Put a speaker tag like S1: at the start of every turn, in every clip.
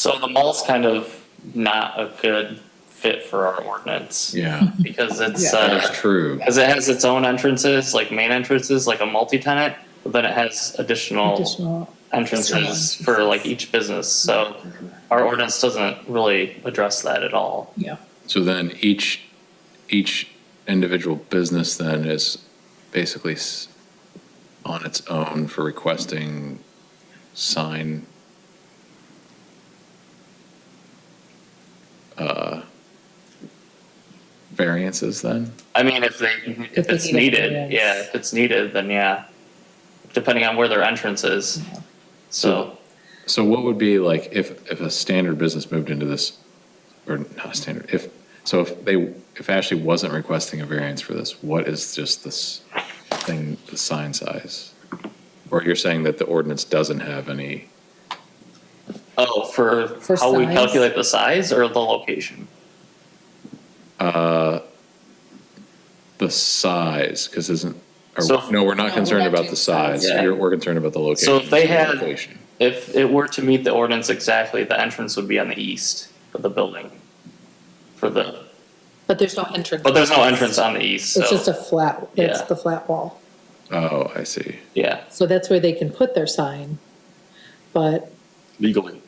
S1: So the mall's kind of not a good fit for our ordinance
S2: Yeah,
S1: because it's,
S3: Yeah.
S1: uh,
S2: that's true.
S1: because it has its own entrances, like main entrances, like a multi-tenant, but then it has additional
S3: additional.
S1: entrances for like each business. So our ordinance doesn't really address that at all.
S3: Yeah.
S2: So then each, each individual business then is basically s- on its own for requesting sign uh, variances then?
S1: I mean, if they, if
S3: they
S1: it's
S3: need it,
S1: needed,
S3: yes.
S1: yeah, if it's needed, then yeah, depending on where their entrance is. So
S2: So what would be like if, if a standard business moved into this, or not a standard, if, so if they, if Ashley wasn't requesting a variance for this, what is just this thing, the sign size? Or you're saying that the ordinance doesn't have any,
S1: Oh, for
S3: For
S1: how we
S3: size?
S1: calculate the size or the location?
S2: the size, because isn't,
S1: So-
S2: or, no, we're not
S3: we're
S2: concerned
S3: not
S2: about
S3: doing
S2: the size,
S1: size. Yeah.
S2: You're- we're concerned about the location.
S1: So if they
S2: the
S1: had-
S2: location.
S1: If it were to meet the ordinance exactly, the entrance would be on the east of the building. For the,
S3: But there's no entrance.
S1: but there's no entrance on the east,
S3: It's just
S1: so,
S3: a flat, it's
S1: Yeah.
S3: the flat wall.
S2: Oh, I see.
S1: yeah.
S3: So that's where they can put their sign. But
S4: legally.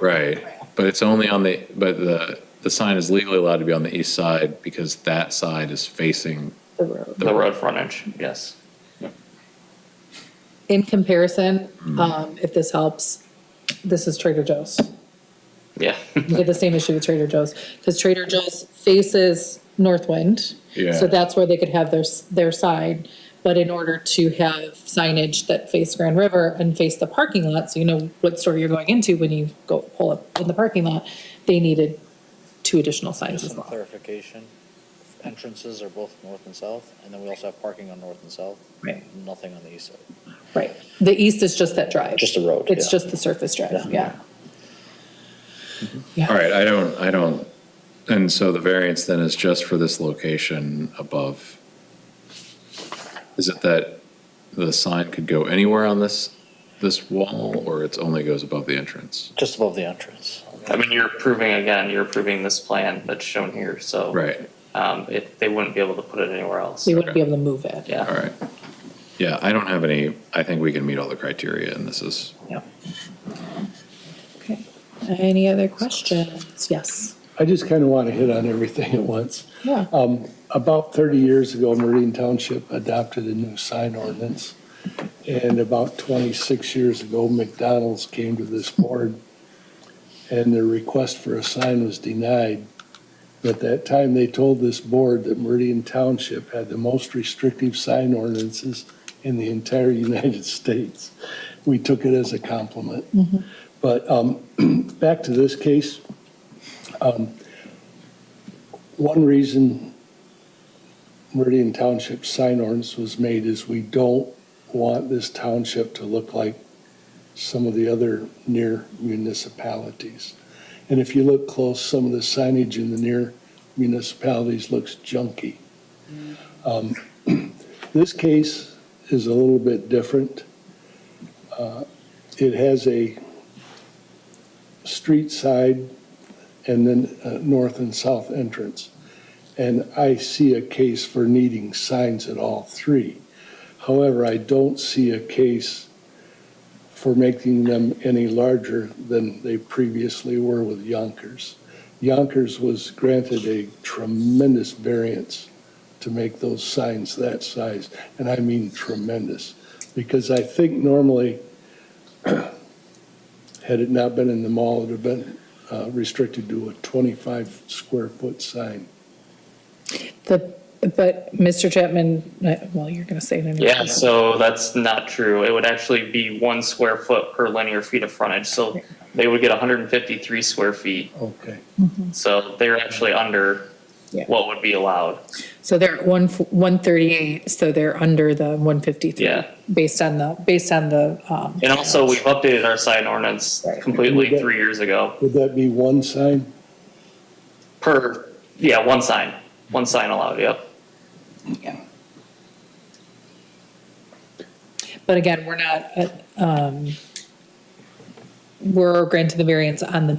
S2: Right, but it's only on the, but the, the sign is legally allowed to be on the east side because that side is facing
S3: the road,
S1: The road frontage, yes.
S3: in comparison,
S1: Mm-hmm.
S3: um, if this helps, this is Trader Joe's.
S1: Yeah,
S3: We get the same issue with Trader Joe's because Trader Joe's faces Northwind.
S2: Yeah.
S3: So that's where they could have their, s- their side. But in order to have signage that face Grand River and face the parking lot, so you know what store you're going into when you go pull up in the parking lot, they needed two additional signs
S5: Just
S3: as
S5: some
S3: well.
S5: clarification, entrances are both north and south, and then we also have parking on north and south.
S3: Right.
S5: Nothing on the east side.
S3: Right. The east is just that drive.
S5: Just the road,
S3: It's
S5: yeah.
S3: just the surface drive, yeah.
S2: All right, I don't, I don't, and so the variance then is just for this location above. Is it that the sign could go anywhere on this, this wall, or it's only goes above the entrance?
S5: Just above the entrance.
S1: I mean, you're approving again, you're approving this plan that's shown here, so.
S2: Right,
S1: Um, it, they wouldn't be able to put it anywhere else,
S3: We wouldn't be able to move it.
S1: yeah.
S2: all right. Yeah, I don't have any, I think we can meet all the criteria and this is,
S3: Yeah. Okay. Any other questions? Yes.
S6: I just kind of want to hit on everything at once.
S3: Yeah.
S6: About 30 years ago, Marine Township adopted a new sign ordinance. And about 26 years ago, McDonald's came to this board and their request for a sign was denied. At that time, they told this board that Meridian Township had the most restrictive sign ordinances in the entire United States. We took it as a compliment. But um, back to this case, um, one reason Meridian Township sign ordinance was made is we don't want this township to look like some of the other near municipalities. And if you look close, some of the signage in the near municipalities looks junky. Um, This case is a little bit different. Uh, It has a street side and then uh, north and south entrance. And I see a case for needing signs at all three. However, I don't see a case for making them any larger than they previously were with Yonkers. Yonkers was granted a tremendous variance to make those signs that size, and I mean tremendous. Because I think normally, had it not been in the mall, it would have been uh, restricted to a 25 square foot sign.
S3: The, but Mr. Chapman, uh, well, you're going to say it anyway.
S1: Yeah, so that's not true. It would actually be one square foot per linear feet of frontage, so they would get hundred and fifty-three square feet.
S6: Okay.
S1: So they're actually under
S3: Yeah.
S1: what would be allowed.
S3: So they're at one, f- 138, so they're under the 153.
S1: Yeah.
S3: Based on the, based on the, um,
S1: And also, we've updated our sign ordinance
S3: Right.
S1: completely three years ago
S6: Would that be one sign?
S1: per, yeah, one sign, one sign allowed, yep.
S3: yeah. But again, we're not, uh, um, were granted the variance on the